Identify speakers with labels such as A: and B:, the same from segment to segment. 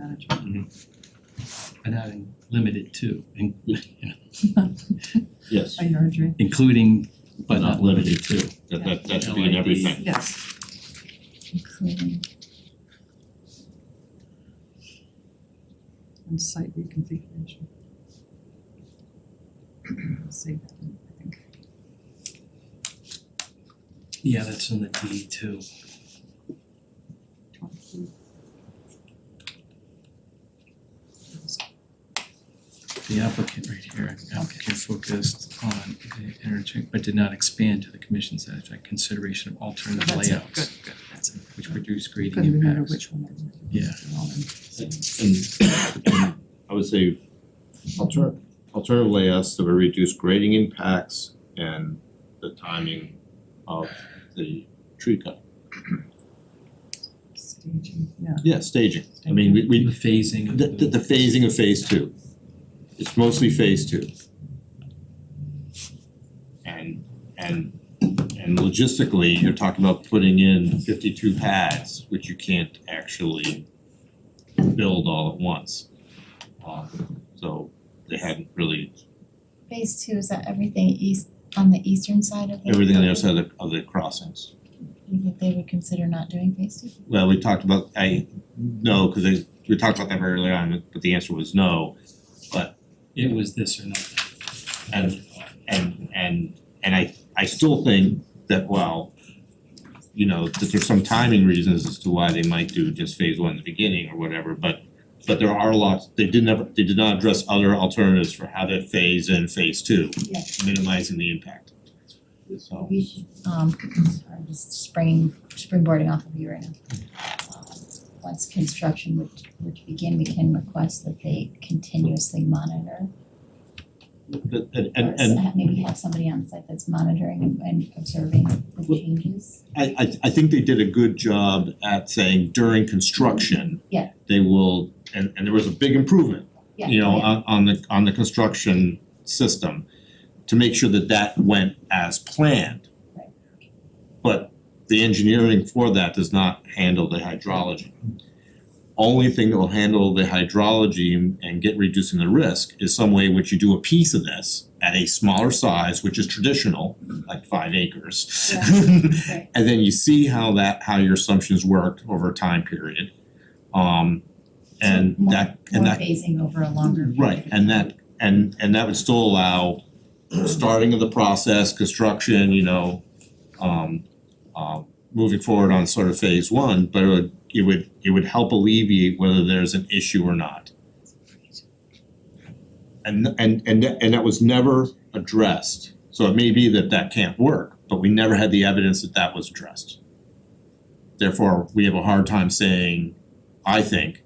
A: management.
B: and having limited to, in- you know,
C: Yes,
A: I heard you,
B: including but
C: but
B: not
C: not limited to, that that that should be in
B: Yeah.
C: everything.
A: yes. Including. And site reconfiguration. Save that, in, I think.
B: Yeah, that's in the D too.
A: Twenty.
D: The applicant right here, applicant focused on the interchange, but did not expand to the commission's satisfaction consideration of alternative
A: That's it, good,
D: layouts,
A: good, that's it.
D: which reduce grading
A: Couldn't remember
D: impacts.
A: which one I read.
D: Yeah.
A: They're all in.
C: And and I would say alter alternative layouts that will reduce grading impacts and the timing of the tree cut.
A: Staging, yeah.
C: Yeah, staging, I mean, we we
B: The phasing of
C: the the the phasing of phase two. It's mostly phase two. And and and logistically, you're talking about putting in fifty-two pads, which you can't actually build all at once. Uh, so they hadn't really,
E: Phase two, is that everything east, on the eastern side of the?
C: everything on the other side of the of the crossings.
E: You think they would consider not doing phase two?
C: Well, we talked about, I, no, cause I, we talked about that very early on, but the answer was no.
B: It was this or nothing.
C: And and and and I I still think that while you know, that there's some timing reasons as to why they might do just phase one in the beginning or whatever, but but there are lots, they did never, they did not address other alternatives for how to phase in phase two,
E: Yeah.
C: minimizing the impact. So
E: We should, um, I'm just springing, springboarding off of you right now. Um, Once construction would would begin, we can request that they continuously monitor.
C: but and
E: or
C: and and
E: s- Maybe have somebody on site that's monitoring and- and observing the
C: Well-
E: changes.
C: I I I think they did a good job at saying during construction.
E: Yeah.
C: They will, and and there was a big improvement
E: Yeah,
C: you know,
E: yeah.
C: on on the on the construction system to make sure that that went as planned.
E: Right.
C: But the engineering for that does not handle the hydrology. Only thing that will handle the hydrology and- and get reducing the risk is some way in which you do a piece of this at a smaller size, which is traditional, like five acres.
E: right.
C: And then you see how that, how your assumptions worked over a time period. Um and
E: So more-
C: that, and that
E: More phasing over a longer period.
C: Right, and that, and and that would still allow starting of the process, construction, you know, um um moving forward on sort of phase one, but it would, it would, it would help alleviate whether there's an issue or not. And and and that and that was never addressed, so it may be that that can't work, but we never had the evidence that that was addressed. Therefore, we have a hard time saying, I think,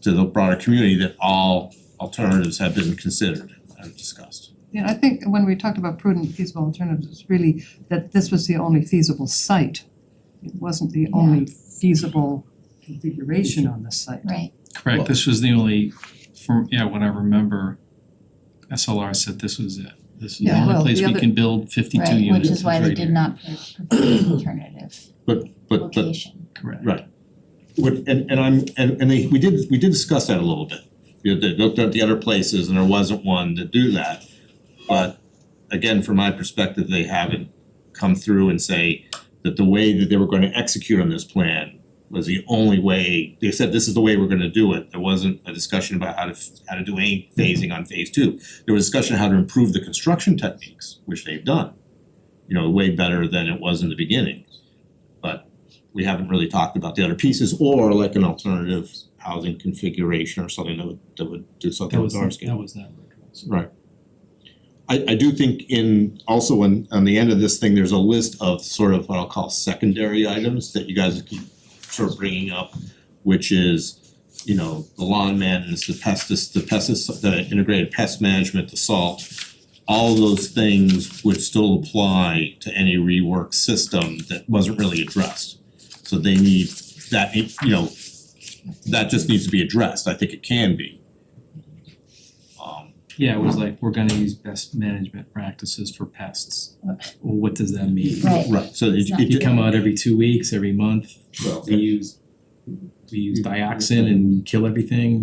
C: to the broader community that all alternatives have been considered and discussed.
A: Yeah, I think when we talked about prudent feasible alternatives, it's really that this was the only feasible site. It wasn't the only feasible configuration on the site.
E: Right,
D: Correct, this was the only, from, yeah, when I remember, SLR said this was it. This is the
A: Yeah,
D: only
A: well,
D: place
A: the
D: we
A: other-
D: can build fifty-two
E: right,
D: units.
E: which is why they
D: right
E: did
D: here.
E: not pro- provide an alternative
C: But but
E: location.
D: Correct.
C: would and and I'm and and they we did we did discuss that a little bit. You know, they looked at the other places and there wasn't one to do that. But again, from my perspective, they haven't come through and say that the way that they were gonna execute on this plan was the only way, they said this is the way we're gonna do it. There wasn't a discussion about how to f- how to do any phasing on phase two. There was discussion how to improve the construction techniques, which they've done. You know, way better than it was in the beginning. But we haven't really talked about the other pieces, or like an alternative housing configuration or something that would that would do something
B: That
C: with
B: was,
C: our scale.
B: that was never addressed.
C: Right. I I do think in also in on the end of this thing, there's a list of sort of what I'll call secondary items that you guys keep sort of bringing up, which is you know, the lawn maintenance, the pestis, the pestis, the integrated pest management, the salt. All those things would still apply to any rework system that wasn't really addressed. So they need that, you know, that just needs to be addressed. I think it can be. Um
D: Yeah, it was like, we're gonna use best management practices for pests. Well, what does that mean?
E: Right,
C: Right, so it
E: It's not
C: it
D: You come out every two weeks, every month,
C: well,
D: we use we use dioxin and kill everything,